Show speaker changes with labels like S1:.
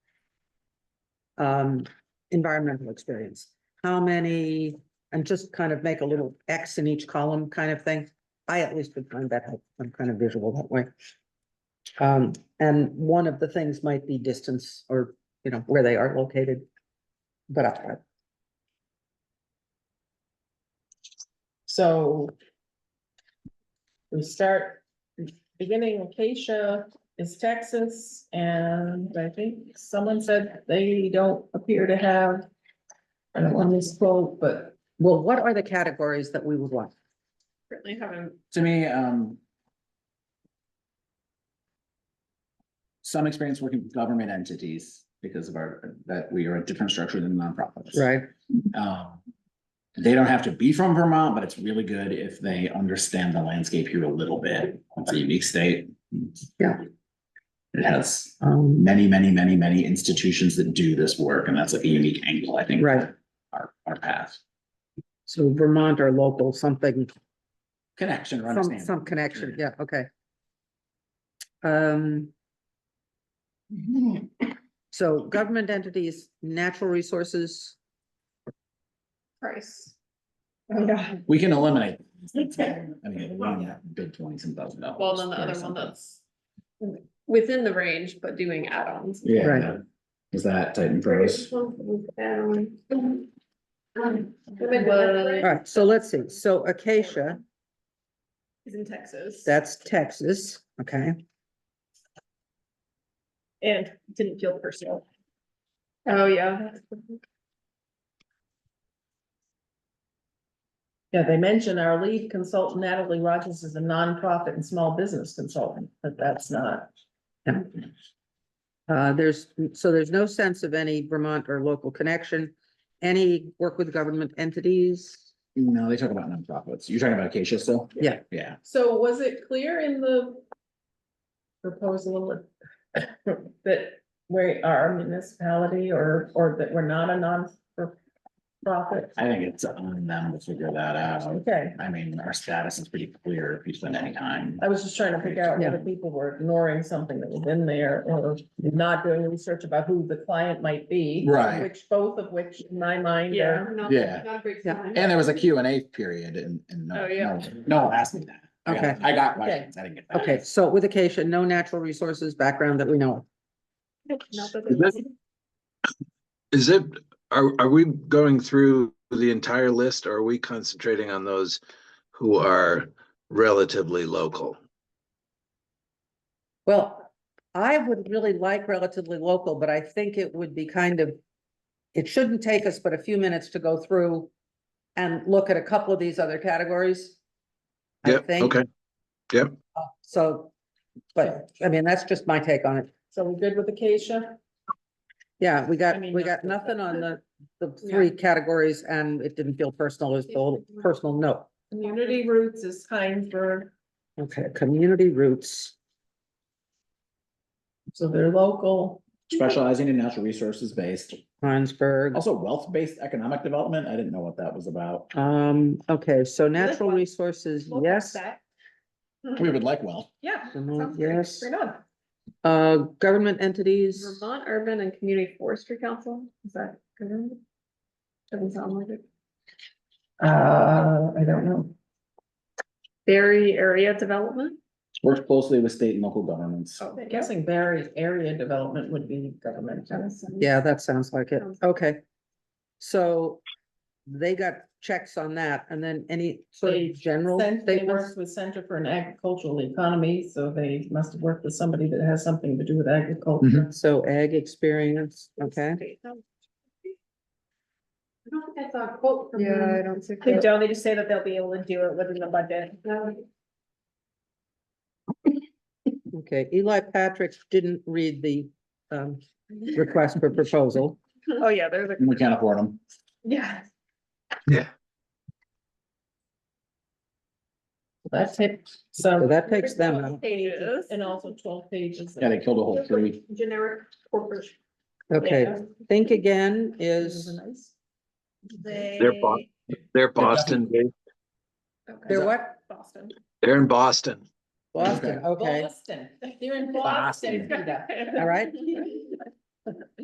S1: um, environmental experience. How many, and just kind of make a little X in each column kind of thing. I at least would find that helpful. I'm kind of visual that way. Um, and one of the things might be distance or, you know, where they are located. But uh, I,
S2: So. We start, beginning Acacia is Texas, and I think someone said they don't appear to have. I don't want to misquote, but
S1: well, what are the categories that we would want?
S2: certainly haven't.
S3: to me, um. Some experience working with government entities because of our, that we are a different structure than nonprofits.
S1: Right,
S3: Um, they don't have to be from Vermont, but it's really good if they understand the landscape here a little bit. It's a unique state.
S1: Yeah.
S3: It has
S1: um,
S3: many, many, many, many institutions that do this work, and that's like a unique angle, I think.
S1: Right.
S3: Our, our path,
S1: so Vermont or local, something,
S3: connection, or
S1: some,
S3: understanding.
S1: some connection, yeah, okay. Um,
S2: Mhm.
S1: so government entities, natural resources,
S2: Price. Oh, yeah.
S3: We can eliminate. I mean, one big twenty some thousand dollars.
S4: Well, then the
S3: or
S4: other one
S3: something.
S4: that's within the range, but doing add-ons.
S3: Yeah.
S1: Right.
S3: no. Is that Titan Pros?
S4: Was-
S1: all right, so let's see, so Acacia,
S4: Is in Texas.
S1: that's Texas, okay,
S4: And didn't feel personal. Oh, yeah.
S2: Yeah, they mentioned our lead consultant Natalie Rogers is a nonprofit and small business consultant, but that's not.
S1: uh, there's, so there's no sense of any Vermont or local connection. Any work with government entities,
S3: No, they talk about nonprofits. You're talking about Acacia still?
S1: Yeah.
S3: Yeah.
S2: So was it clear in the proposal that we are a municipality or, or that we're not a non-profit?
S3: I think it's on them to figure that out.
S2: Okay,
S3: I mean, our status is pretty clear if you spend any time.
S2: I was just trying to figure out whether people were ignoring something that was in there or not doing research about who the client might be.
S3: Right.
S2: Which, both of which in my mind
S4: Yeah.
S2: are,
S4: not-
S3: Yeah.
S4: Not a great
S1: Yeah.
S4: sign.
S3: And there was a Q and A period and, and no,
S4: Oh, yeah.
S3: no, no one asked me that. I got-
S1: Okay.
S3: I got questions. I didn't get that.
S1: okay, so with Acacia, no natural resources background that we know of.
S4: Not
S5: Is that- Is it, are, are we going through the entire list or are we concentrating on those who are relatively local?
S1: Well, I would really like relatively local, but I think it would be kind of, it shouldn't take us but a few minutes to go through and look at a couple of these other categories. I
S5: Yep,
S1: think,
S5: okay,
S1: so, but, I mean, that's just my take on it.
S2: so we're good with Acacia?
S1: Yeah, we
S2: I
S1: got,
S2: mean,
S1: we
S2: that's
S1: got nothing on the, the
S4: Yeah.
S1: three categories and it didn't feel personal as the whole personal note.
S2: Community Roots is Heinsberg,
S1: Okay, community roots,
S2: so they're local.
S3: Specializing in natural resources based,
S1: Heinsberg,
S3: also wealth based economic development. I didn't know what that was about.
S1: um, okay, so natural
S4: one-
S1: resources,
S4: Look at
S1: yes.
S4: that.
S3: We would like wealth.
S4: Yeah.
S1: Vermont,
S4: sounds great.
S1: Yes,
S4: Right on.
S1: uh, government entities.
S4: Vermont Urban and Community Forestry Council, is that good? Doesn't sound like it.
S2: Uh, I don't know.
S4: Berry Area Development?
S3: Worked closely with state and local governments.
S4: Oh,
S2: I'm guessing Barry area development would be government.
S1: Yeah, that sounds like it.
S4: Sounds-
S1: Okay. So they got checks on that and then any sort
S2: They
S1: of general
S2: Since They worked
S1: statements?
S2: with Center for an Agricultural Economy, so they must have worked with somebody that has something to do with agriculture.
S1: So ag experience, okay.
S4: I don't think I saw a quote from.
S6: Yeah, I
S4: them.
S6: don't see.
S4: They
S6: that.
S4: don't, they just say that they'll be able to do it within the budget.
S1: Okay, Eli Patrick didn't read the um request for proposal.
S4: Oh, yeah, there's a,
S3: We can't afford them.
S4: yeah.
S2: That takes,
S1: So
S2: so,
S1: that takes them out.
S4: Pages.
S2: and also twelve pages.
S3: Yeah, they killed a whole tree.
S4: Generic corporate.
S1: Okay,
S4: Yeah.
S1: think again
S2: Those
S1: is,
S2: are nice.
S4: They.
S5: fine. They're Boston, based.
S4: Okay.
S1: they're what?
S4: Boston.
S5: they're in Boston.
S1: Boston, okay.
S2: Boston, they're in Boston,
S3: Boston.
S2: Peter.
S1: All right.